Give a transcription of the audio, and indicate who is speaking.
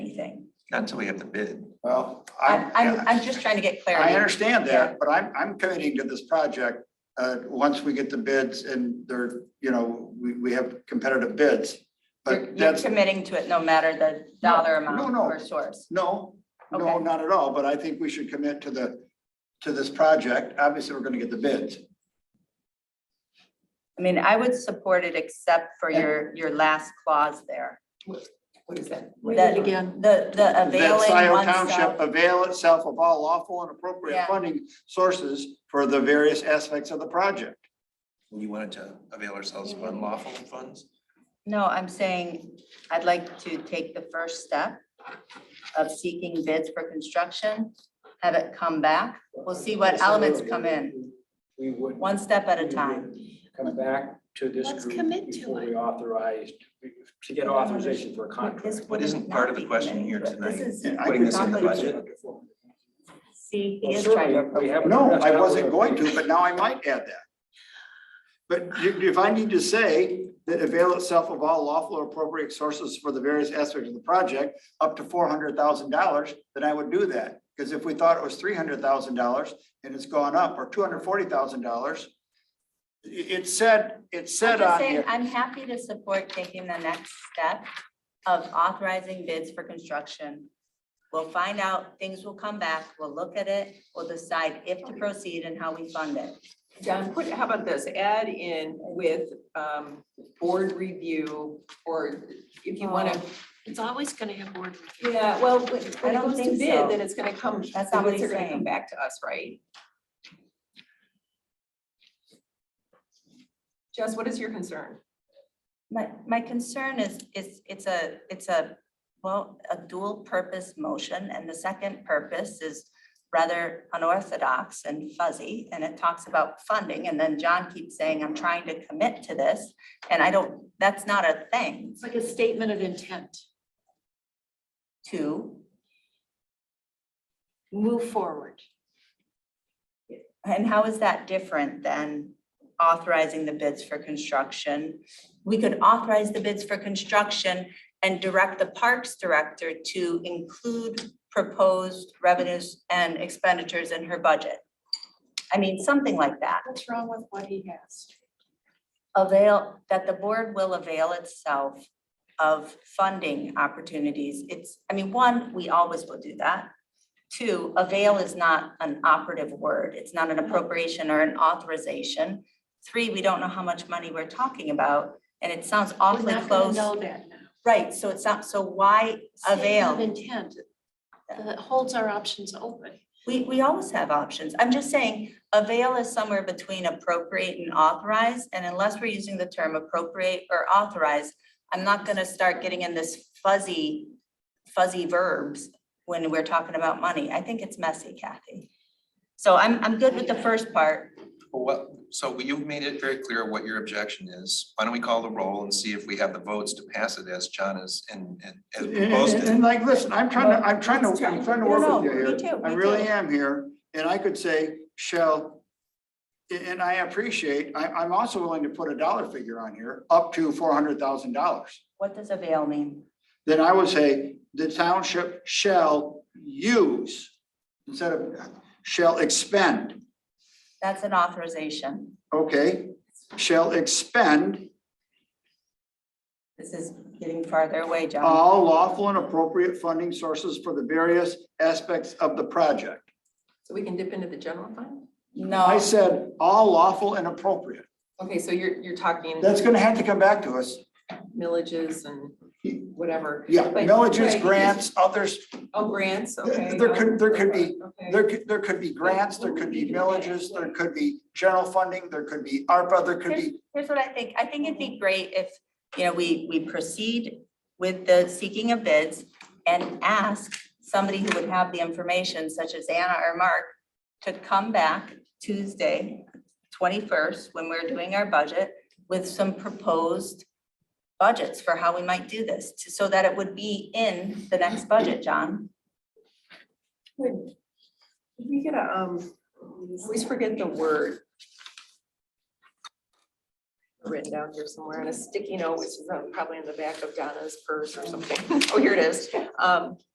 Speaker 1: anything.
Speaker 2: Not until we have the bid.
Speaker 3: Well,
Speaker 1: I'm,
Speaker 3: I,
Speaker 1: I'm,
Speaker 2: yeah.
Speaker 1: I'm just trying to get
Speaker 3: I
Speaker 1: clarity.
Speaker 3: understand
Speaker 1: Yeah.
Speaker 3: that, but I'm, I'm committing to this project. Uh, once we get the bids and they're, you know, we, we have competitive bids.
Speaker 1: You're
Speaker 3: But
Speaker 1: you're
Speaker 3: that's,
Speaker 1: committing to it no matter the dollar
Speaker 3: no,
Speaker 1: amount
Speaker 3: no.
Speaker 1: or source.
Speaker 3: no, no,
Speaker 1: Okay.
Speaker 3: not at all, but I think we should commit to the, to this project. Obviously, we're gonna get the bids.
Speaker 1: I mean, I would support it except for your, your last clause there.
Speaker 4: What is that?
Speaker 5: Read
Speaker 1: That-
Speaker 5: it again.
Speaker 1: The, the
Speaker 3: That
Speaker 1: availing
Speaker 3: Scioto
Speaker 1: oneself.
Speaker 3: Township avail itself of all lawful and appropriate
Speaker 1: Yeah.
Speaker 3: funding sources for the various aspects of the project.
Speaker 2: You wanted to avail ourselves of unlawful funds?
Speaker 1: No, I'm saying I'd like to take the first step of seeking bids for construction, have it come back. We'll see what elements come in,
Speaker 6: We would.
Speaker 1: one step at a time.
Speaker 6: Come back to this
Speaker 5: Let's
Speaker 6: group
Speaker 5: commit to
Speaker 6: before
Speaker 5: it.
Speaker 6: we authorized, to get authorization for a contract.
Speaker 1: This
Speaker 2: But isn't
Speaker 1: would
Speaker 2: part
Speaker 1: not
Speaker 2: of the
Speaker 1: be
Speaker 2: question here
Speaker 1: committing to it. This
Speaker 3: And
Speaker 1: is-
Speaker 3: I
Speaker 2: Putting this in the
Speaker 1: Exactly.
Speaker 2: budget?
Speaker 1: See, he
Speaker 6: Well,
Speaker 1: is trying
Speaker 6: certainly, we
Speaker 1: to.
Speaker 6: haven't
Speaker 3: No,
Speaker 6: addressed
Speaker 3: I
Speaker 6: that
Speaker 3: wasn't
Speaker 6: one.
Speaker 3: going to, but now I might add that. But you- if I need to say that avail itself of all lawful or appropriate sources for the various aspects of the project, up to four hundred thousand dollars, then I would do that. Because if we thought it was three hundred thousand dollars and it's gone up, or two hundred forty thousand dollars, it, it said, it
Speaker 1: I'm
Speaker 3: said
Speaker 1: just
Speaker 3: on
Speaker 1: saying,
Speaker 3: here.
Speaker 1: I'm happy to support taking the next step of authorizing bids for construction. We'll find out, things will come back, we'll look at it, we'll decide if to proceed and how we fund it.
Speaker 4: John, put, how about this, add in with um board review or if you wanna,
Speaker 5: Oh, It's always gonna have board review.
Speaker 4: yeah, well, when it
Speaker 1: I don't
Speaker 4: goes to
Speaker 1: think so.
Speaker 4: bid, then it's gonna come, the
Speaker 1: That's not what
Speaker 4: bids are
Speaker 1: he's
Speaker 4: gonna come
Speaker 1: saying.
Speaker 4: back to us, right? Jess, what is your concern?
Speaker 1: My, my concern is, is it's a, it's a, well, a dual purpose motion and the second purpose is rather unorthodox and fuzzy and it talks about funding and then John keeps saying, I'm trying to commit to this. And I don't, that's not a thing
Speaker 5: It's like a statement of intent.
Speaker 1: to,
Speaker 5: Move forward.
Speaker 1: and how is that different than authorizing the bids for construction? We could authorize the bids for construction and direct the Parks Director to include proposed revenues and expenditures in her budget. I mean, something like that.
Speaker 5: What's wrong with what he has?
Speaker 1: Avail, that the board will avail itself of funding opportunities. It's, I mean, one, we always will do that. Two, avail is not an operative word. It's not an
Speaker 5: Mm-hmm.
Speaker 1: appropriation or an authorization. Three, we don't know how much money we're talking about, and it sounds awfully
Speaker 5: We're not gonna
Speaker 1: close.
Speaker 5: Know that now.
Speaker 1: Right, so it's not, so why
Speaker 5: Statement
Speaker 1: avail?
Speaker 5: Of intent that holds our options open.
Speaker 1: We, we always have options. I'm just saying, avail is somewhere between appropriate and authorize, and unless we're using the term appropriate or authorize, I'm not gonna start getting in this fuzzy, fuzzy verbs when we're talking about money. I think it's messy, Kathy. So I'm, I'm good with the first part.
Speaker 2: Well, what, so you've made it very clear what your objection is. Why don't we call the roll and see if we have the votes to pass it as John is and and as
Speaker 3: And,
Speaker 2: proposed
Speaker 3: and-
Speaker 2: it?
Speaker 3: and like, listen, I'm trying to, I'm trying to, I'm trying to work with you
Speaker 1: No, no,
Speaker 3: here.
Speaker 1: me too,
Speaker 3: I
Speaker 1: me
Speaker 3: really
Speaker 1: too.
Speaker 3: am here, and I could say shall. a- And I appreciate, I, I'm also willing to put a dollar figure on here, up to four hundred thousand dollars.
Speaker 1: What does avail mean?
Speaker 3: Then I would say the township shall use instead of shall expend,
Speaker 1: That's an authorization.
Speaker 3: okay? Shall expend
Speaker 1: This is getting farther away, John.
Speaker 3: all lawful and appropriate funding sources for the various aspects of the project.
Speaker 4: So we can dip into the general
Speaker 3: I
Speaker 4: fund?
Speaker 1: No,
Speaker 3: said all lawful and appropriate.
Speaker 4: Okay, so you're you're talking
Speaker 3: That's gonna have to come back to us.
Speaker 4: millages and whatever,
Speaker 3: Yeah,
Speaker 4: But-
Speaker 3: villages,
Speaker 4: right.
Speaker 3: grants, others,
Speaker 4: oh, grants,
Speaker 3: There-
Speaker 4: okay.
Speaker 3: there could- there could be-
Speaker 4: Okay.
Speaker 3: there could, there could be grants, there could be villages, there could be general funding, there could be ARPA, there could be.
Speaker 1: Here's what I think. I think it'd be great if, you know, we, we proceed with the seeking of bids and ask somebody who would have the information such as Anna or Mark to come back Tuesday, twenty-first, when we're doing our budget with some proposed budgets for how we might do this, to- so that it would be in the next budget, John.
Speaker 4: Would would we get a, um, I always forget the word. Written down here somewhere on a sticky note, which is uh, probably in the back of Donna's purse or something. Oh, here it is. Um,